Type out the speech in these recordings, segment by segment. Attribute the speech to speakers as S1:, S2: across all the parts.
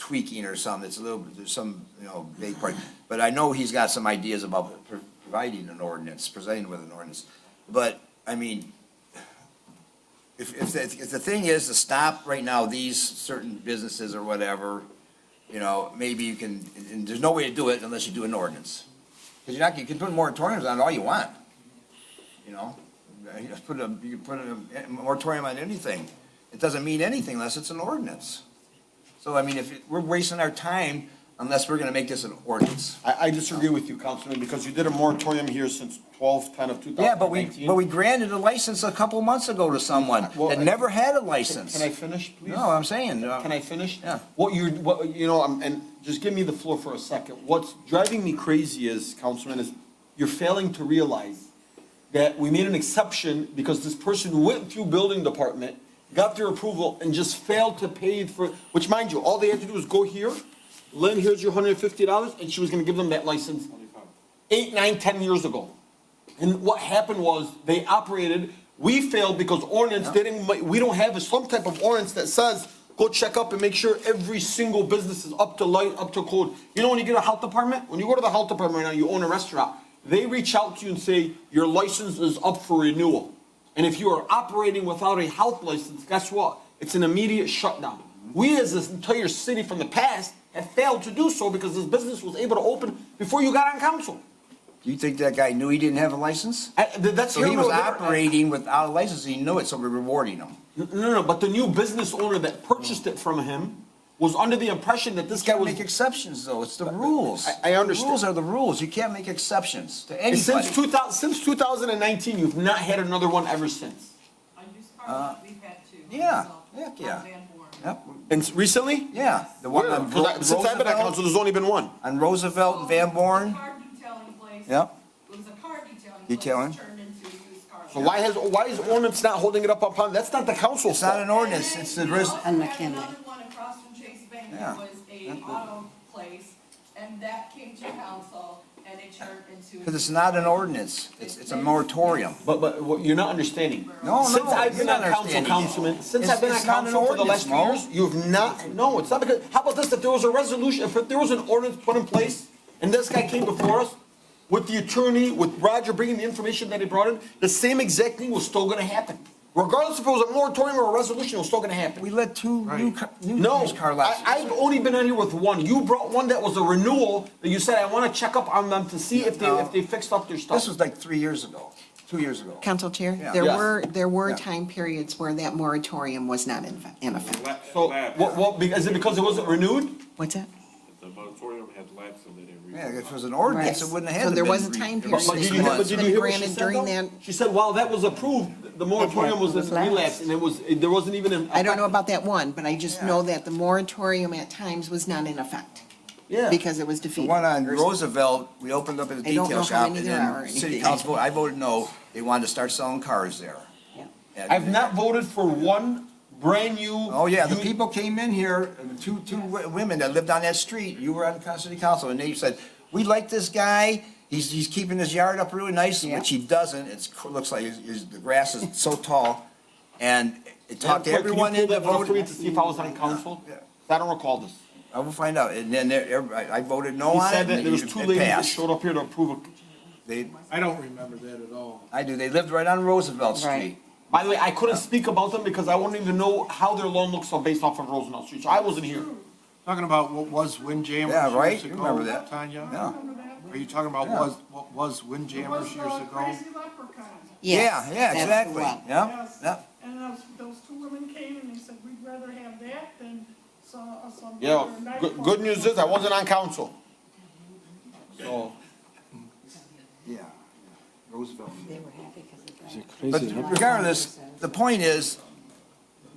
S1: tweaking or something, it's a little, there's some, you know, vague part. But I know he's got some ideas about pro- providing an ordinance, presenting with an ordinance. But, I mean, if, if, the- if the thing is to stop right now these certain businesses or whatever, you know, maybe you can, and- and there's no way to do it unless you do an ordinance. Because you're not, you can put moratoriums on all you want, you know? You just put a, you can put a moratorium on anything. It doesn't mean anything unless it's an ordinance. So I mean, if, it- we're wasting our time unless we're gonna make this an ordinance.
S2: I, I disagree with you, Councilman, because you did a moratorium here since twelve, ten of two
S1: Yeah,
S2: thousand
S1: but we,
S2: nineteen.
S1: but we granted a license a couple months ago to someone
S2: Well,
S1: that
S2: I-
S1: never had a license.
S2: Can I finish, please?
S1: No, I'm saying, uh,
S2: Can I finish?
S1: Yeah.
S2: What you're, what, you know, um, and just give me the floor for a second. What's driving me crazy is, Councilman, is you're failing to realize that we made an exception because this person went through building department, got their approval, and just failed to pay for, which mind you, all they had to do was go here, Lynn, here's your hundred and fifty dollars, and she was gonna give them that license eight, nine, ten years ago. And what happened was, they operated, we failed because ordinance didn't, ma- we don't have a- some type of ordinance that says, go check up and make sure every single business is up to light, up to code. You know, when you get a health department, when you go to the health department right now, you own a restaurant, they reach out to you and say, your license is up for renewal. And if you are operating without a health license, guess what? It's an immediate shutdown. We as this entire city from the past have failed to do so because this business was able to open before you got on council.
S1: you think that guy knew he didn't have a license?
S2: I- th- That's
S1: So he
S2: here nor
S1: was
S2: there.
S1: operating without a license, he knew it, so we're rewarding him.
S2: No, no, no, but the new business owner that purchased it from him was under the impression that this guy
S1: Can't
S2: was.
S1: make exceptions though, it's the rules.
S2: I- I understand.
S1: The Rules are the rules, you can't make exceptions to
S2: And
S1: anybody.
S2: Since two thousand, since two thousand and nineteen, you've not had another one ever since.
S3: On used cars, we've had to.
S1: Uh, yeah,
S3: so,
S1: heck
S3: on
S1: yeah.
S3: Van Born.
S1: Yep,
S2: And recently?
S1: yeah, the one on Ro- Roosevelt,
S2: there's only been one.
S1: on Roosevelt and Van
S3: It was
S1: Born,
S3: a car detailing place.
S1: Yep.
S3: It was a car detailing.
S1: Detailing.
S3: Place turned into a used car.
S2: So why has, why is ordinance not holding it up upon, that's not the council's
S1: it's not
S2: fault.
S1: an ordinance, it's the, res-
S3: And then we also had
S4: mechanic.
S3: another one across from Chase Bank
S1: Yeah.
S3: that was a auto place, and that came to council, and it turned into.
S1: because it's not an ordinance, it's, it's a moratorium.
S2: But, but what you're not understanding.
S1: No, no,
S2: Since I've been
S1: you're
S2: on
S1: not
S2: council,
S1: understanding it.
S2: Councilman, since
S1: It's-
S2: I've been on
S1: it's not an
S2: council for the last two
S1: ordinance,
S2: years, you've not, no, it's not because, how about this, if there was a resolution, if there was an ordinance put in place, and this guy came before us, with the attorney, with Roger bringing the information that he brought in, the same exact thing was still gonna happen. Regardless if it was a moratorium or a resolution, it was still gonna happen.
S1: We let two new, car- new
S2: No,
S1: used car
S2: I,
S1: lots.
S2: I've only been on here with one. You brought one that was a renewal that you said, I wanna check up on them to see if they, if they fixed up their stuff.
S1: This was like three years ago, two years ago.
S4: Council Chair,
S1: Yeah.
S4: there
S2: Yes.
S4: were, there were
S1: Yeah.
S4: time periods where that moratorium was not in, in effect.
S2: So, what, what, be- is it because it wasn't renewed?
S4: What's that?
S5: The moratorium had lapsed and they didn't.
S1: Yeah, if it was an
S4: Right.
S1: ordinance, it wouldn't have had
S4: So
S1: to
S4: there
S1: been
S4: was a
S1: re-
S4: time
S1: it
S4: period.
S1: was
S2: But
S1: six
S2: did you hear,
S1: months.
S2: but did you hear what she
S4: Granted
S2: said
S4: during
S2: though?
S4: that-
S2: She said, while that was approved, the moratorium was in
S4: was lapsed.
S2: relapse and it was, it- there wasn't even an.
S4: I don't know about that one, but I just know that the moratorium at times was not in effect.
S2: Yeah.
S4: Because it was
S1: The
S4: defeated.
S1: one on Roosevelt, we opened up at a
S4: I don't know
S1: detail
S4: how
S1: shop
S4: many
S1: and
S4: there are or
S1: then city
S4: anything.
S1: council, voted- I voted no, they wanted to start selling cars there.
S4: Yeah.
S1: And-
S2: I've not voted for one brand new.
S1: Oh, yeah, the
S2: you-
S1: people came in here, and two, two wo- women that lived on that street, you were on the city council, and they said, we like this guy, he's, he's keeping his yard up really nice,
S4: Yeah.
S1: which he doesn't, it's, cr- looks like his, his, the grass is so tall. And it
S2: Madam
S1: talked to
S2: Clerk, can you
S1: everyone
S2: pull
S1: in that
S2: that one up for me to
S1: voted,
S2: see if I was on council?
S1: Yeah.
S2: I don't recall this.
S1: I will find out, and then there- everybody, Oh, I voted no
S2: He
S1: on
S2: said
S1: it,
S2: that
S1: and
S2: there was
S1: it
S2: two ladies that
S1: passed.
S2: showed up here to approve. it.
S1: They,
S6: I don't remember that at all.
S1: I do, they lived right on Roosevelt
S4: Right.
S1: Street.
S2: By the way, I couldn't speak about them because I wouldn't even know how their loan looks on based off of Roosevelt Street. So I wasn't here.
S6: Talking about what was Windjammers
S1: Yeah, right,
S6: years
S1: you
S6: ago,
S1: remember that?
S6: Tanya?
S1: Yeah.
S6: Are you talking about
S1: Yeah.
S6: was, what was Windjammers years ago?
S7: uh, Crazy leprechauns.
S4: Yes,
S1: Yeah, yeah,
S4: that's the
S1: exactly,
S4: one.
S1: yeah,
S7: Yes.
S1: yeah.
S7: And those, those two women came and they said, we'd rather have that than some, uh, some.
S2: Yeah,
S7: other night
S2: good,
S7: club."
S2: good news is I wasn't on council. So.
S1: Yeah, Roosevelt. But regardless, the point is,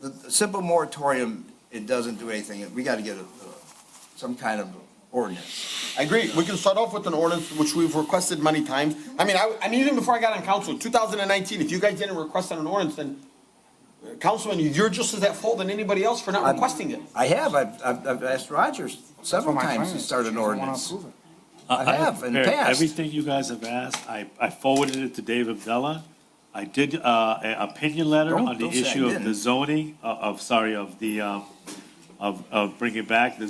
S1: the the simple moratorium, it doesn't do anything. We gotta get a, a- some kind of ordinance.
S2: I agree. We can start off with an ordinance, which we've requested many times. I mean, I, I mean, even before I got on council, two thousand and nineteen, if you guys didn't request an ordinance, then uh, Councilman, you're just as at fault than anybody else for not requesting it.
S1: I have, I've, I've I've asked Rogers several times to start an ordinance. I have in the
S5: prepared
S1: past.
S5: Everything you guys have asked, I, I forwarded it to Dave Abdella. I did, uh, an opinion letter
S1: Don't-
S5: on the
S1: don't say I
S5: issue of
S1: didn't.
S5: the zoning, of, of, sorry, of the, um, of, of bringing back the